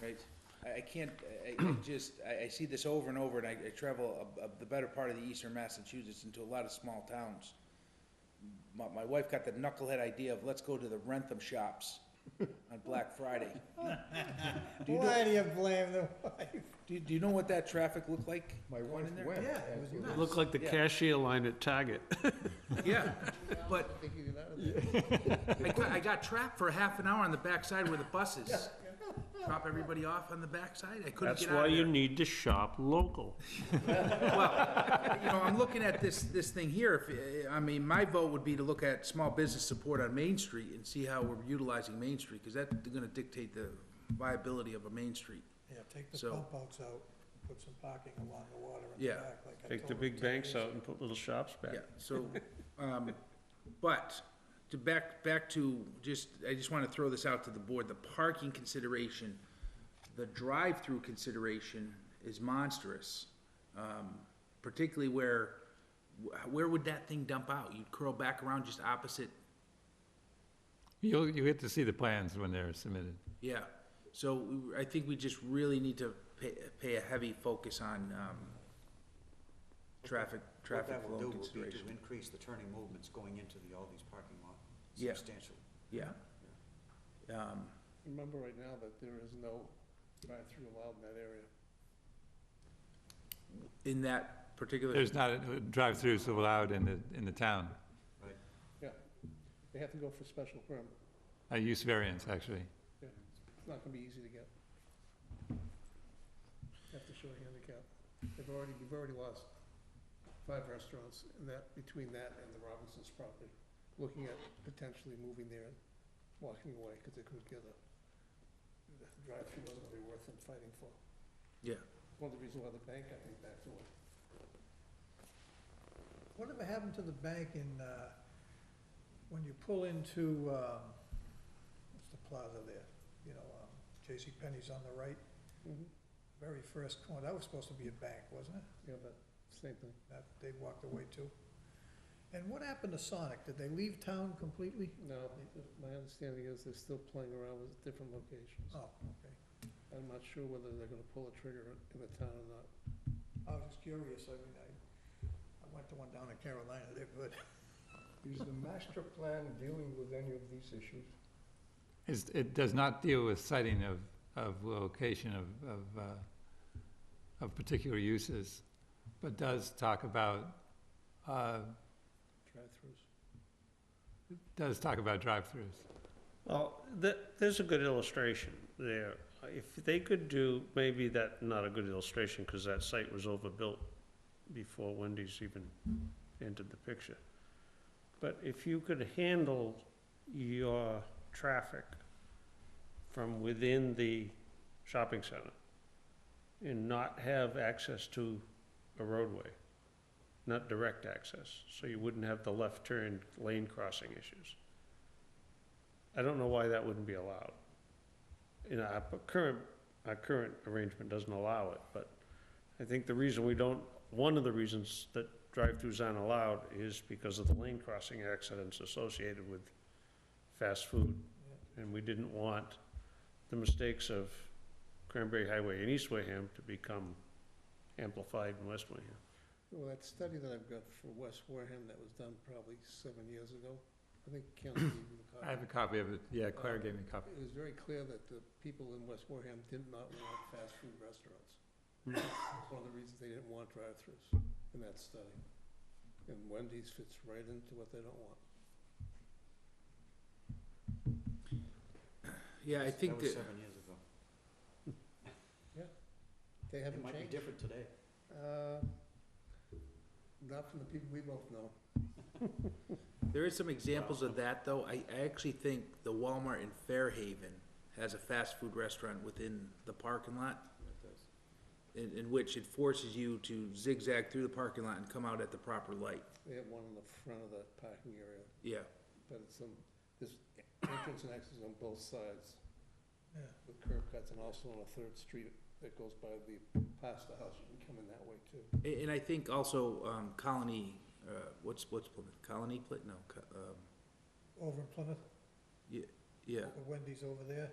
right? I, I can't, I, I just, I, I see this over and over, and I, I travel a, a, the better part of the eastern Massachusetts into a lot of small towns. My, my wife got the knucklehead idea of, let's go to the Rentham shops on Black Friday. Why do you blame the wife? Do, do you know what that traffic looked like? My going wife in there? went. Yeah, it was Absolutely. nuts. Looked like the Yeah. cashier line at Target. Yeah, but I got, I got trapped for half an hour on the backside where the bus is. Drop everybody off on the backside, I couldn't That's get out why of you there. need to shop local. Well, you know, I'm looking at this, this thing here, if, eh, I mean, my vote would be to look at small business support on Main Street and see how we're utilizing Main Street, because that's gonna dictate the viability of a Main Street. Yeah, take the So- pump outs out, put some parking along the water in the Yeah. back, like I told Take the him big 10 banks years out and put little shops back. Yeah, so, um, but, to back, back to, just, I just wanna throw this out to the board, the parking consideration, the drive-through consideration is monstrous. Um, particularly where, wh- where would that thing dump out? You'd curl back around just opposite, You'll, you get to see the plans when they're submitted. yeah. So, we- I think we just really need to pay, pay a heavy focus on, um, traffic, What traffic that will flow do will be consideration. to increase the turning movements going into the Aldi's parking lot Yeah. substantially. Yeah. Um, Remember right now that there is no drive-through allowed in that area. in that particular. There's not, a- drive-throughs allowed in the, in the town. They have to go for special permit. A use variance, actually. Yeah, It's not gonna be easy to get. Have to show a handicap. They've already, we've already lost five restaurants in that, between that and the Robinsons property. Looking at potentially moving there and walking away because they couldn't get a, the drive-through wasn't gonna be worth them fighting for. Yeah. One of the reasons why the bank, I think, backed away. Whatever happened to the bank in, uh, when you pull into, um, what's the plaza there? You know, um, J.C. Penney's on the right, Mm-hmm. very first corner, that was supposed to be a bank, wasn't it? Yeah, but same thing. That, they walked away too. And what happened to Sonic? Did they leave town completely? No, my understanding is they're still playing around with different locations. Oh, okay. I'm not sure whether they're gonna pull a trigger in the town or not. I was just curious, I mean, I, I went to one down in Carolina, they're good. Is the master plan dealing with any of these issues? It's, it does not deal with citing of, of location of, of, uh, of particular uses, but does talk about, uh, Drive-throughs. does talk about drive-throughs. Well, th there's a good illustration there. If they could do, maybe that, not a good illustration, because that site was overbuilt before Wendy's even entered the picture. But if you could handle your traffic from within the shopping center and not have access to a roadway, not direct access, so you wouldn't have the left turn lane crossing issues. I don't know why that wouldn't be allowed. You know, our p- current, our current arrangement doesn't allow it, but I think the reason we don't, one of the reasons that drive-throughs aren't allowed is because of the lane crossing accidents associated with fast food. And we didn't want the mistakes of Cranberry Highway in East Wareham to become amplified in West Wareham. Well, that study that I've got for West Wareham that was done probably seven years ago, I think Ken gave you the I have a copy. copy of it, yeah, Claire gave me a copy. It was very clear that the people in West Wareham did not want fast food restaurants. It's One of the reasons they didn't want drive-throughs in that study. And Wendy's fits right into what they don't want. Yeah, I think was that, seven years ago. They It haven't might be changed. different today. Uh, Not from the people we both know. there is some examples of that, though. I, I actually think the Walmart in Fairhaven has a fast food restaurant within the parking lot. In, in which it forces you to zigzag through the parking lot and come out at the proper light. They have one in the front of the parking area, Yeah, but it's on, there's entrance and exits on both sides Yeah. with curb cuts and also on a third street that goes by the pasta house. You can come in that way too. A- and, I think also, um, Colony, uh, what's, what's Plymouth? Colony Plymouth? No, Co- um, Over in Plymouth, yeah, the Wendy's over there,